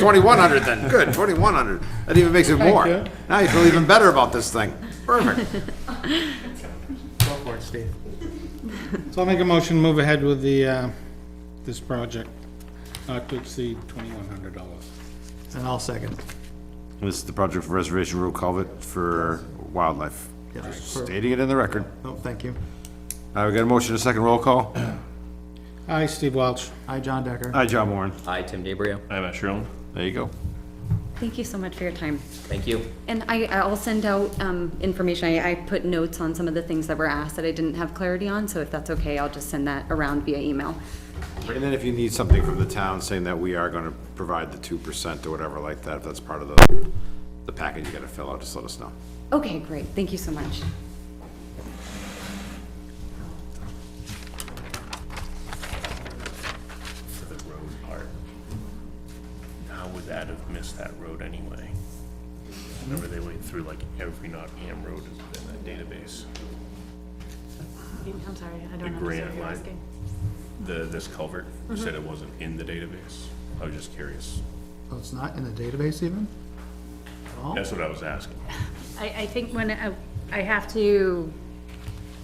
twenty-one hundred then, good, twenty-one hundred. That even makes it more. you. Now you feel even better about this thing. Perfect. Go for it, Steve. So I'll make a motion, to move ahead with the, uh, this project, not to exceed twenty-one hundred dollars. And I'll second. This is the project for Reservation Road Culvert for wildlife. Yes. Just Stating it in the record. No, Oh, thank you. Uh, we got a motion, a second roll call. Aye, Steve Welch. Hi, John Decker. Hi, John Warren. Hi, Tim DeBrio. I'm Matt Sherlin. There you go. Thank you so much for your time. Thank you. And I, I'll send out, um, information. I, I put notes on some of the things that were asked that I didn't have clarity on, so if that's okay, I'll just send that around via email. And then if you need something from the town saying that we are gonna provide the two percent or whatever like that, if that's part of the, the package you gotta fill out, just let us know. Okay, great. Thank you so much. For the road part. How would that have missed that road anyway? Remember they went through like every Nottingham road in that database, I'm sorry, I the don't understand grant what you're line? asking. The, this culvert, you said it wasn't in the database? I was just curious. So Oh, it's not in the database even? That's what I was asking. I, I think when, I I have to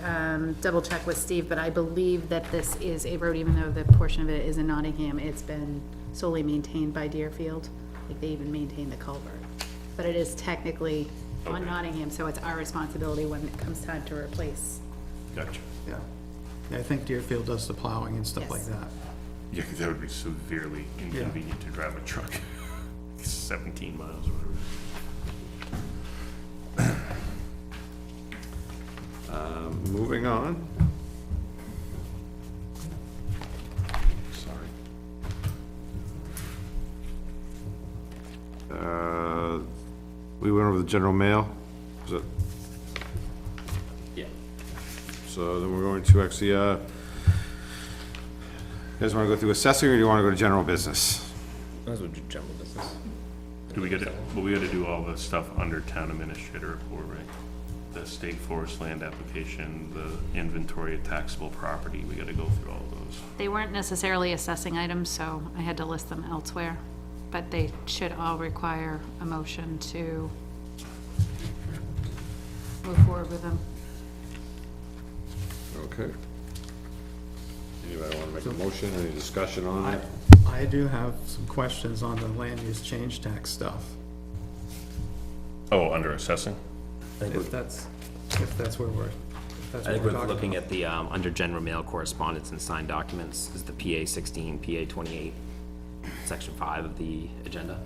um, double check with Steve, but I believe that this is a road, even though the portion of it is in Nottingham, it's been solely maintained by Deerfield. Like, they even maintain the culvert. But it is technically on Okay. Nottingham, so it's our responsibility when it comes time to replace. Gotcha. Yeah. Yeah, I think Deerfield does the plowing and stuff like Yes. that. Yeah, 'cause that would be severely inconvenient to drive a truck seventeen miles or whatever. Moving on. Sorry. Uh, We went over the general mail, is it? Yeah. So then we're going to actually, uh, you guys wanna go through assessing or do you wanna go to general business? Might as well do general business. Do we gotta, but we gotta do all the stuff under town administrator report, right? The state forest land application, the inventory of taxable property, we gotta go through all those. They weren't necessarily assessing items, so I had to list them elsewhere, but they should all require a motion to move forward with them. Okay. Anybody wanna make a motion, any discussion on Um, I, it? I do have some questions on the land use change tax stuff, Oh, under assessing? I think if we're- that's, if that's where we're, if that's I what think we're we're talking looking about. at the, um, under general mail correspondence and signed documents is the PA sixteen, PA twenty-eight, section five of the agenda.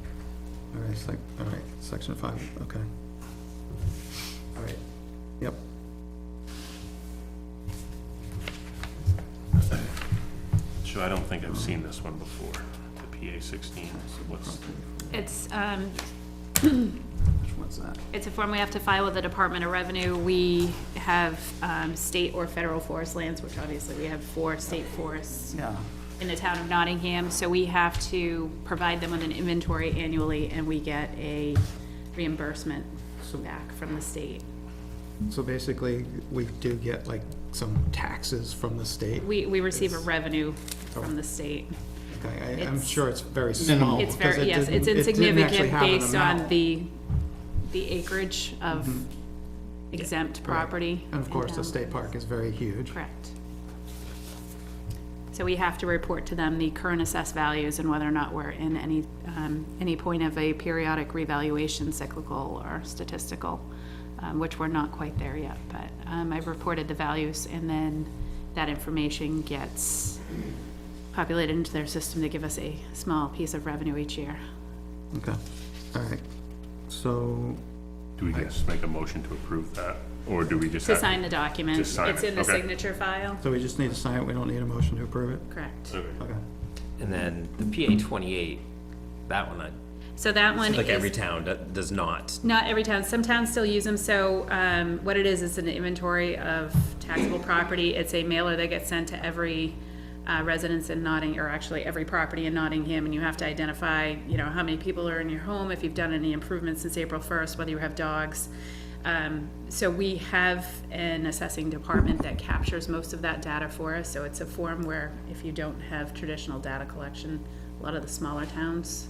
All right, sec, all right, section five, okay. All right, yep. So I don't think I've seen this one before, the PA sixteen, so what's, It's, um, Which one's that? it's a form we have to file with the Department of Revenue. We have, um, state or federal forest lands, which obviously we have four state forests Yeah, in the town of Nottingham, so we have to provide them with an inventory annually, and we get a reimbursement back from the state. so basically, we do get like some taxes from the state. We, we receive a revenue from the state. Okay, I, I'm It's- sure it's very small. It's because it very, yes, it's didn't- it didn't actually insignificant have an based on amount. the, the acreage of exempt property. Mm-hmm. And of course, the um, state park is very huge. Correct. So we have to report to them the current assessed values and whether or not we're in any, um, any point of a periodic revaluation cyclical or statistical, um, which we're not quite there yet, but, um, I've reported the values and then that information gets populated into their system to give us a small piece of revenue each year. Okay, all right. So, do we just make a motion to approve that? Or do we just To have? sign the document, Just sign it's it, in the okay. signature file, so we just need to sign it, we don't need a motion to approve it? correct. Okay. Okay. And then the PA twenty-eight, that one, I, So that one is. like every town that does not. Not every town, some towns still use them, so, um, what it is, is an inventory of taxable property, it's a mailer that gets sent to every, uh, residence in Notting, or actually every property in Nottingham, and you have to identify, you know, how many people are in your home, if you've done any improvements since April first, whether you have dogs. Um, so we have an assessing department that captures most of that data for us, so it's a form where if you don't have traditional data collection, a lot of the smaller towns